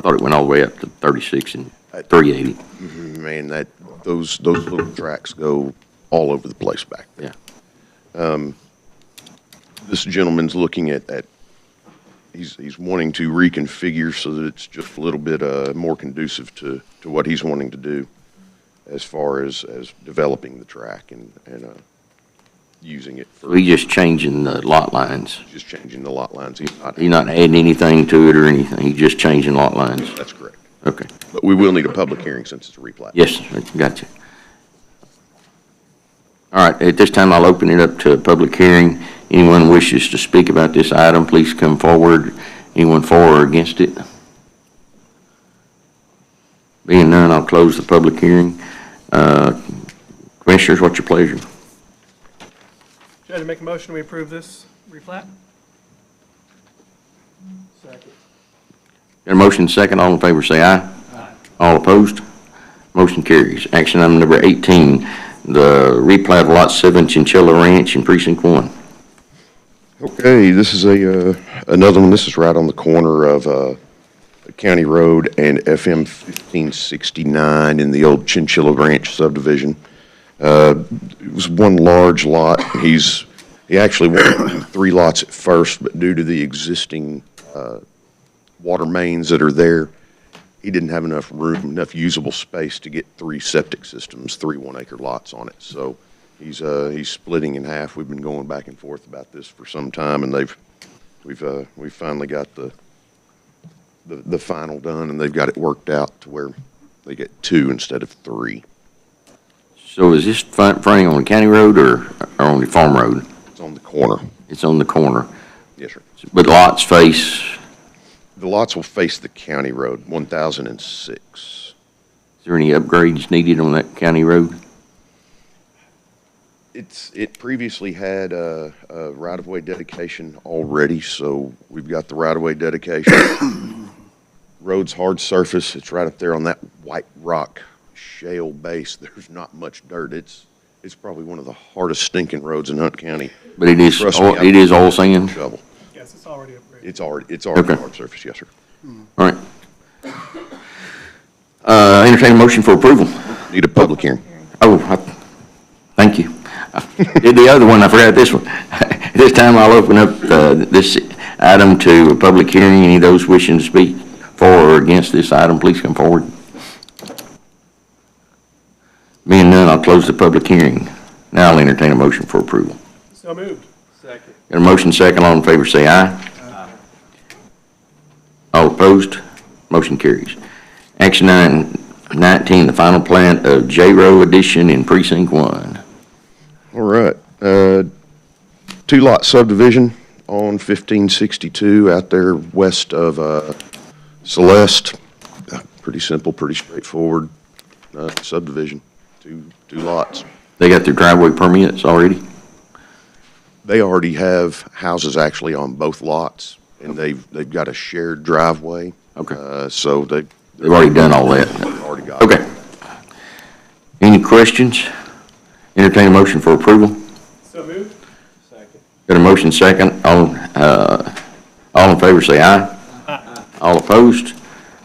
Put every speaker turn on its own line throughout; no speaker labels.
thought it went all the way up to 36 and 380,
Man, that, those, those little tracks go all over the place back there.
yeah.
This gentleman's looking at, at, he's, he's wanting to reconfigure so that it's just a little bit, uh, more conducive to, to what he's wanting to do as far as, as developing the track and, and, uh, using it for,
We just changing the lot lines.
just changing the lot lines. He's not,
He's not adding anything to it or anything, he's just changing lot lines.
that's correct.
Okay,
But we will need a public hearing since it's a replat.
yes, sir. gotcha. All right, at this time, I'll open it up to a public hearing. Anyone wishes to speak about this item, please come forward. Anyone for or against it? Being none, I'll close the public hearing. Uh, Commissioners, what's your pleasure?
Judge, I make a motion, we approve this replat? Second.
Got a motion second, all in favor say aye. All opposed? Motion carries. Action item number 18, the replat of Lot 7 Chinchilla Ranch in Precinct 1.
Okay, this is a, uh, another one, this is right on the corner of uh, County Road and FM 1569 in the old Chinchilla Ranch subdivision. Uh, It was one large lot, he's, he actually wanted to do three lots at first, but due to the existing uh, water mains that are there, he didn't have enough room, enough usable space to get three septic systems, three one-acre lots on it. So he's, uh, he's splitting in half. We've been going back and forth about this for some time, and they've, we've, uh, we finally got the, the, the final done, and they've got it worked out to where they get two instead of three.
So is this fron- fronting on the county road or or on the farm road?
It's on the corner.
It's on the corner,
Yes, sir.
but lots face,
The lots will face the county road, 1006.
is there any upgrades needed on that county road?
It's, it previously had a, a right-of-way dedication already, so we've got the right-of-way dedication. Road's hard surface, it's right up there on that white rock shale base, there's not much dirt, it's, it's probably one of the hardest stinking roads in Hunt County.
But it is,
Trust
oil-
me, I-
Oh, it is all sand?
Shovel,
Yes, it's already approved.
it's already, it's already
Okay.
hard surface, yes, sir.
All right. Uh, Entertain a motion for approval.
Need a public hearing.
Oh, I- thank you. I Did the other one, I forgot this one. At This time, I'll open up uh, this item to a public hearing. Any of those wishing to speak for or against this item, please come forward. Being none, I'll close the public hearing. Now I'll entertain a motion for approval.
So moved. Second.
Got a motion second, all in favor say aye. All opposed, motion carries. Action item 19, the final plat of J-Row Edition in Precinct 1.
All right, uh, two-lot subdivision on fifteen sixty-two out there west of, uh, Celeste. Uh, Pretty simple, pretty straightforward, uh, subdivision, two, two lots.
They got their driveway permits already?
They already have houses actually on both lots, and they've, they've got a shared driveway.
Okay.
Uh, so they.
They've already done all that.
They've Already got it.
Okay. Any questions? Entertain a motion for approval?
So moved? Second.
Got a motion second, all, uh, all in favor say aye. All opposed,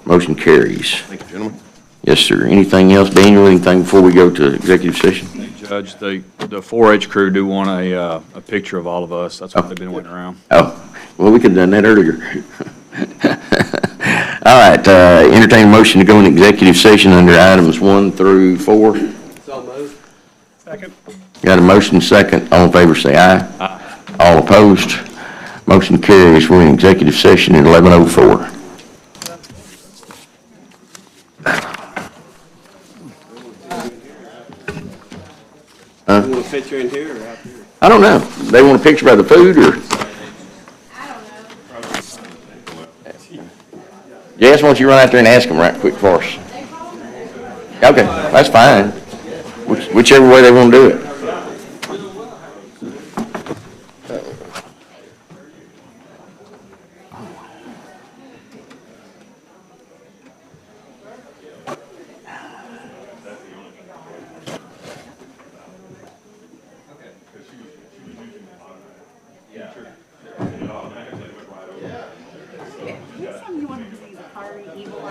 motion carries.
Thank you, gentlemen.
Yes, sir. Anything else, Daniel, anything before we go to executive session?
Judge, the, the 4-H crew do want a, uh, a picture of all of us. That's what they've been wanting around.
Oh, well, we could've done that earlier. All right, uh, entertain a motion to go in executive session under items one through four.
Second?
Got a motion second, all in favor say aye. All opposed, motion carries, we're in executive session at eleven oh four.
You want to fit you in here or out here?
I don't know, they want a picture by the food or? Jess, why don't you run out there and ask them right quick for us? Okay, that's fine, Which- whichever way they wanna do it.